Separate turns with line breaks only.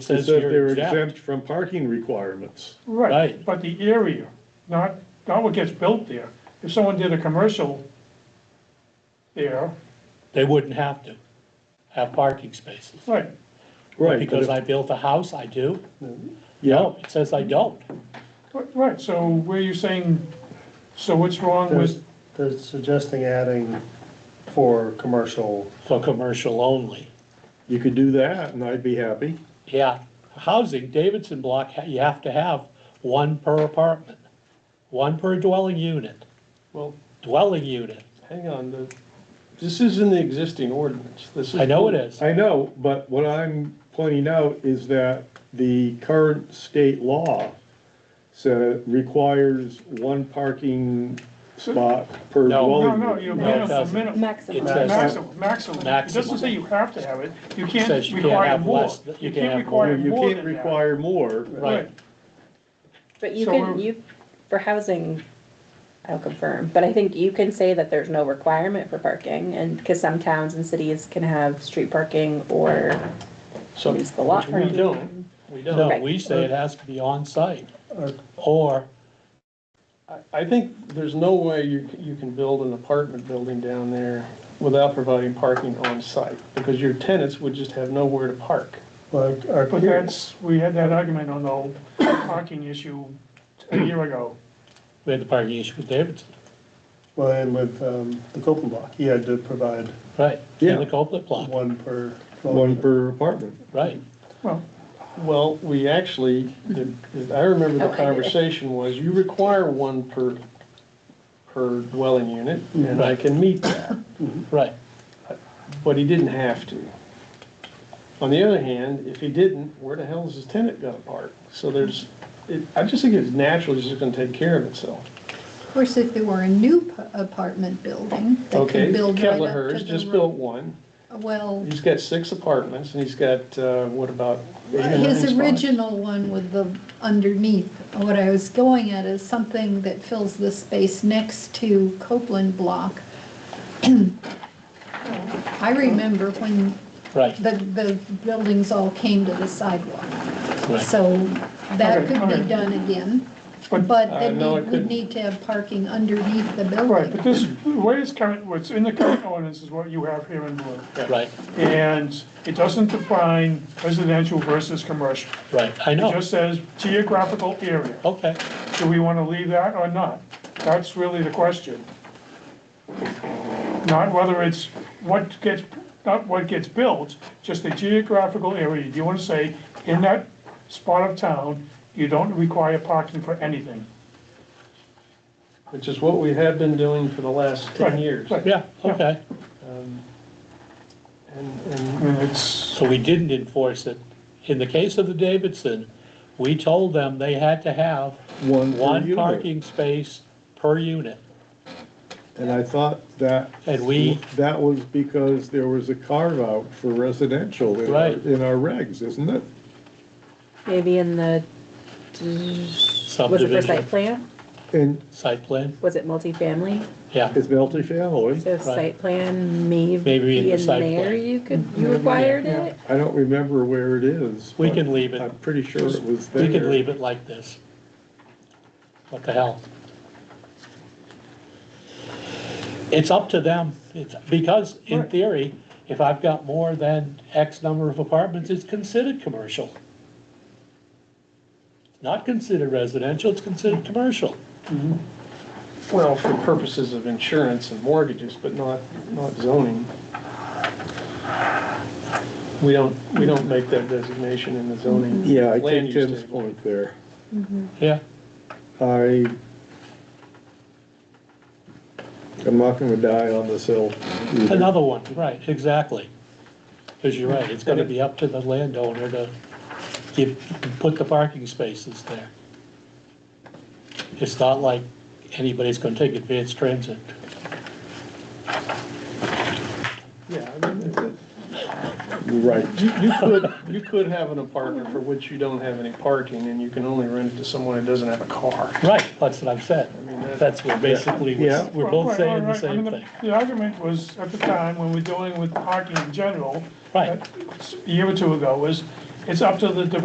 says
Is that
you're
they're
exempt.
exempt from parking requirements.
Right.
Right, but the area, not, not what gets built there. If someone did a commercial there,
They wouldn't have to have parking spaces.
right,
Right.
Because
but
I built a house, I do.
if- Yeah,
No, it says I don't.
right, so where you saying, so what's wrong
They're,
with,
they're suggesting adding for commercial,
For commercial only.
you could do that and I'd be happy.
Yeah, housing, Davidson block, you have to have one per apartment, one per dwelling unit,
Well,
dwelling unit.
hang on, the, this is in the existing ordinance, this is.
I know it is.
I know, but what I'm pointing out is that the current state law so requires one parking spot
No.
per
no,
dwelling.
no, you
No, it
minimum,
doesn't.
minimum,
It
Maximum.
says,
maximum, maximum. It
Maximum.
doesn't say you have to have it, you
Says
can't
you can't
require
have
more.
less than-
You can't require
You
more
can't
than that.
require more.
right,
But you
So
can,
we're-
you, for housing, I'll confirm, but I think you can say that there's no requirement for parking and, because some towns and cities can have street parking or
So,
It's the lot.
which we don't, we don't.
no, we say it has to be on site
Uh,
or
I- I think there's no way you, you can build an apartment building down there without providing parking on site, because your tenants would just have nowhere to park.
like, our
But
peers.
that's, we had that argument on the whole parking issue a year ago.
we had the parking issue with Davidson,
Well, and with, um, the Copeland block, he had to provide
right?
Yeah.
In the Copeland block,
one per.
One per apartment.
right.
Well,
Well, we actually, the- the- I remember the
Okay.
conversation was, you require one per, per dwelling unit, and I can meet that.
Right,
But he didn't have to. On the other hand, if he didn't, where the hell is his tenant gonna park? So there's, it, I just think it's natural, it's just gonna take care of itself.
Of course, if there were a new p- apartment building that
Okay,
could build right up
Kettlehurst
to the
just built
road.
one,
Well,
he's got six apartments, and he's got, uh, what about? eight or nine
his
spots?
original one with the underneath, what I was going at is something that fills the space next to Copeland Block. I remember when
right,
the, the buildings all came to the sidewalk,
right.
so that
Okay,
could be
alright.
done again.
But-
But
Uh,
then
no,
we
it
would
couldn't.
need to have parking underneath the
right, but
building.
this, what is current, what's in the current ordinance is what you have here in blue.
Right,
And it doesn't define residential versus commercial.
right, I
It
know,
just says geographical area.
okay.
Do we want to leave that or not? That's really the question. Not whether it's what gets, not what gets built, just the geographical area. Do you want to say, in that spot of town, you don't require parking for anything?
Which is what we have been doing for the last ten
Right,
years.
right.
Yeah, okay,
And, and
I mean, it's,
so we didn't enforce it. In the case of the Davidson, we told them they had to have
One per
one
unit.
parking space per unit.
And I thought that.
And we-
That was because there was a carve out for residential in our,
Right.
in our regs, isn't it?
maybe in the, was it for
Subdivision,
site plan?
And
site plan,
Was it multifamily?
yeah,
it's multifamily.
So site plan maybe
Maybe in the
in
site
there
plan.
you could, you required it?
I don't remember where it is.
We
but
can leave it.
I'm pretty sure it was there.
we could leave it like this. What the hell? It's up to them, it's, because in theory, if I've got more than X number of apartments, it's considered commercial. Not considered residential, it's considered commercial.
Well, for purposes of insurance and mortgages, but not, not zoning. We don't, we don't make that designation in the zoning.
Yeah, I
land
take
use
Tim's
table.
point there.
Yeah,
I, I'm not gonna die on this hill. either.
another one, right, exactly. Because you're right, it's gonna be up to the landowner to give, put the parking spaces there. It's not like anybody's gonna take advanced transit.
Yeah, I mean, it's a-
Right.
you, you could, you could have an apartment for which you don't have any parking, and you can only rent it to someone who doesn't have a car.
Right, that's what I've said.
mean, that-
That's what basically, we're
Yeah.
we're
Well,
both
right,
saying the
right, right. I mean,
same thing.
The argument was, at the time, when we're dealing with parking in general.
Right.
A year or two ago, was it's up to the developer